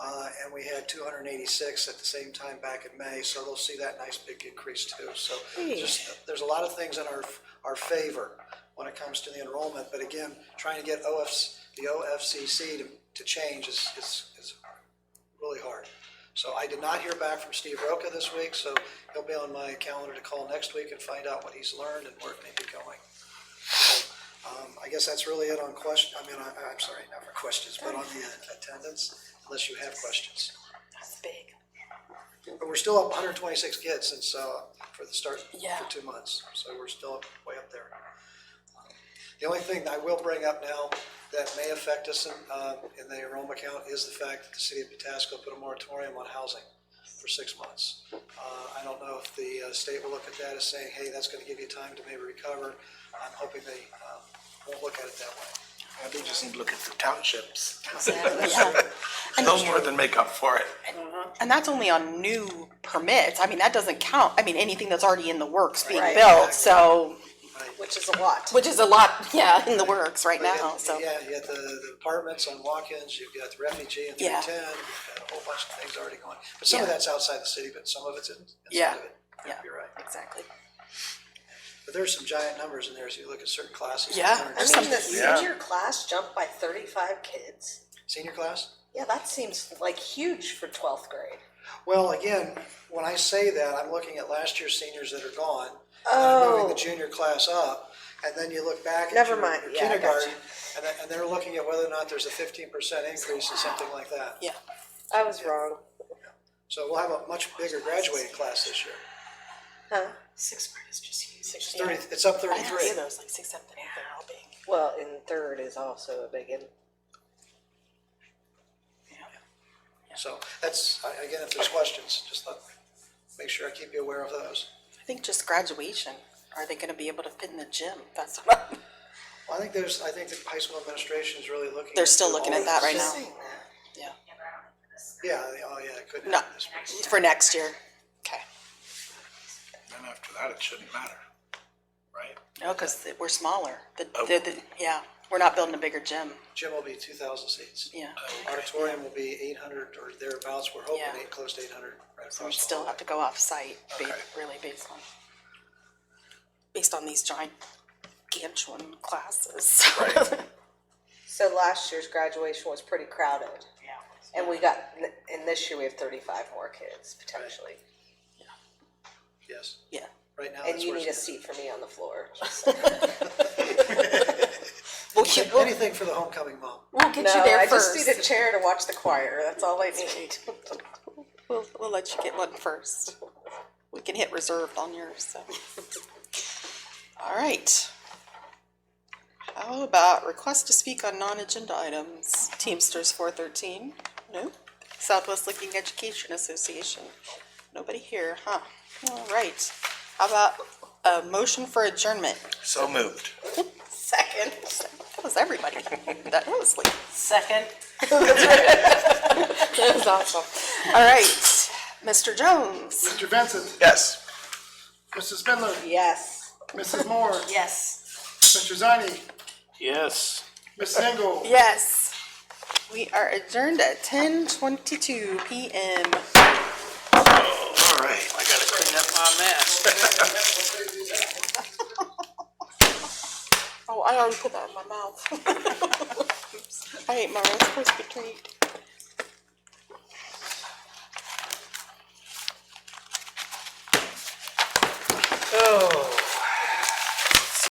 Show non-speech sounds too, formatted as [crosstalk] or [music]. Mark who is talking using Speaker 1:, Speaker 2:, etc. Speaker 1: Uh, and we had two hundred and eighty-six at the same time back in May, so they'll see that nice big increase too. So just, there's a lot of things in our, our favor when it comes to the enrollment, but again, trying to get OFs, the OFCC to, to change is, is, is really hard. So I did not hear back from Steve Roca this week, so he'll be on my calendar to call next week and find out what he's learned and where it may be going. Um, I guess that's really it on question, I mean, I, I'm sorry, not for questions, but on the uh, attendance, unless you have questions.
Speaker 2: That's big.
Speaker 1: But we're still up hundred and twenty-six kids since, uh, for the start,
Speaker 2: Yeah.
Speaker 1: for two months, so we're still up- way up there. The only thing that I will bring up now that may affect us in, uh, in the enrollment count is the fact that the city of Patasko put a moratorium on housing for six months. Uh, I don't know if the uh, state will look at that as saying, hey, that's gonna give you time to maybe recover. I'm hoping they, uh, won't look at it that way.
Speaker 3: I think just need to look at the townships.
Speaker 2: Exactly, yeah. And-
Speaker 3: No more than make up for it.
Speaker 2: And that's only on new permits. I mean, that doesn't count. I mean, anything that's already in the works being
Speaker 4: Right.
Speaker 2: built, so,
Speaker 4: which is a lot.
Speaker 2: which is a lot, yeah, in the works right
Speaker 1: But
Speaker 2: now,
Speaker 1: yet-
Speaker 2: so.
Speaker 1: Yeah, you got the, the apartments on walk-ins, you've got the refugee in three
Speaker 2: Yeah.
Speaker 1: ten, you've got a whole bunch of things already going. But some of
Speaker 2: Yeah.
Speaker 1: that's outside the city, but some of it's in,
Speaker 2: Yeah.
Speaker 1: inside of it.
Speaker 2: Yeah.
Speaker 1: You're right.
Speaker 2: Exactly.
Speaker 1: But there's some giant numbers in there, as you look at certain classes.
Speaker 2: Yeah.
Speaker 1: there are
Speaker 4: I
Speaker 1: some-
Speaker 4: mean, the
Speaker 3: Yeah.
Speaker 4: senior class jumped by thirty-five kids.
Speaker 1: Senior class?
Speaker 4: Yeah, that seems like huge for twelfth grade.
Speaker 1: Well, again, when I say that, I'm looking at last year's seniors that are gone. and I'm Moving the
Speaker 4: Oh.
Speaker 1: junior class up, and then you look back at
Speaker 4: Never
Speaker 1: your
Speaker 4: mind.
Speaker 1: your
Speaker 4: Yeah, I got
Speaker 1: kindergarten,
Speaker 4: you.
Speaker 1: and then, and they're looking at whether or not there's a fifteen percent increase or something like that.
Speaker 2: Yeah.
Speaker 4: I was wrong.
Speaker 1: So we'll have a much bigger graduating class this year.
Speaker 4: Huh?
Speaker 2: Sixth grade is just huge.
Speaker 1: It's thirty, it's up
Speaker 2: I didn't see
Speaker 1: thirty-three.
Speaker 2: those, like six, seven, eight, they're all big.
Speaker 4: Well, and third is also a big one.
Speaker 1: So that's, I- again, if there's questions, just let, make sure I keep you aware of those.
Speaker 2: I think just graduation. Are they gonna be able to fit in the gym? That's what,
Speaker 1: Well, I think there's, I think the high school administration is really looking.
Speaker 2: They're still
Speaker 1: into
Speaker 2: looking
Speaker 1: all
Speaker 2: at that
Speaker 1: these-
Speaker 2: right now. yeah.
Speaker 1: Yeah, they- oh, yeah, it couldn't
Speaker 2: No,
Speaker 1: happen this week.
Speaker 2: for next year. Okay.
Speaker 3: Then after that, it shouldn't matter, right?
Speaker 2: No, cause we're smaller. The,
Speaker 3: Oh.
Speaker 2: the, the, yeah, we're not building a bigger gym,
Speaker 1: Gym will be two thousand seats.
Speaker 2: yeah.
Speaker 1: Auditorium will be eight hundred or thereabouts. We're hoping
Speaker 2: Yeah.
Speaker 1: eight, close to eight hundred right
Speaker 2: So we
Speaker 1: across. the
Speaker 2: still
Speaker 1: hall.
Speaker 2: have to go off-site, ba-
Speaker 3: Okay.
Speaker 2: really based on, based on these gigantuan classes.
Speaker 3: Right.
Speaker 4: So last year's graduation was pretty crowded, and we got, and this year we have thirty-five more kids potentially.
Speaker 1: Yes,
Speaker 2: [laughs] Yeah,
Speaker 1: right now.
Speaker 4: And
Speaker 1: that's
Speaker 4: you
Speaker 1: where
Speaker 4: need a
Speaker 1: it's-
Speaker 4: seat for me on the
Speaker 2: [laughs]
Speaker 4: floor.
Speaker 2: we'll get, we'll,
Speaker 1: Anything for the homecoming mom.
Speaker 2: we'll get you
Speaker 4: No, I
Speaker 2: there
Speaker 4: just need
Speaker 2: first.
Speaker 4: a chair to watch the choir, that's all I need.
Speaker 2: We'll, we'll let you get one first. We can hit reserved on yours, so. All right. How about request to speak on non-agenda items? Teamsters four thirteen, no. Southwest Licking Education Association, nobody here, huh? All right. How about a motion for adjournment?
Speaker 3: So moved.
Speaker 2: Second. That was everybody. That was like.
Speaker 5: Second.
Speaker 2: [laughs] That was awesome. All right, Mr. Jones.
Speaker 6: Mr. Vincent,
Speaker 3: Yes.
Speaker 6: Mrs. Spindler,
Speaker 4: Yes.
Speaker 6: Mrs. Moore,
Speaker 5: Yes.
Speaker 6: Mr. Zani,
Speaker 3: Yes.
Speaker 6: Miss Engel.
Speaker 2: Yes. We are adjourned at ten twenty-two PM.
Speaker 3: All right.
Speaker 5: I gotta clean up my mess.
Speaker 2: [laughs] Oh, I already put that in my mouth. I ate my Rice Krispie treat.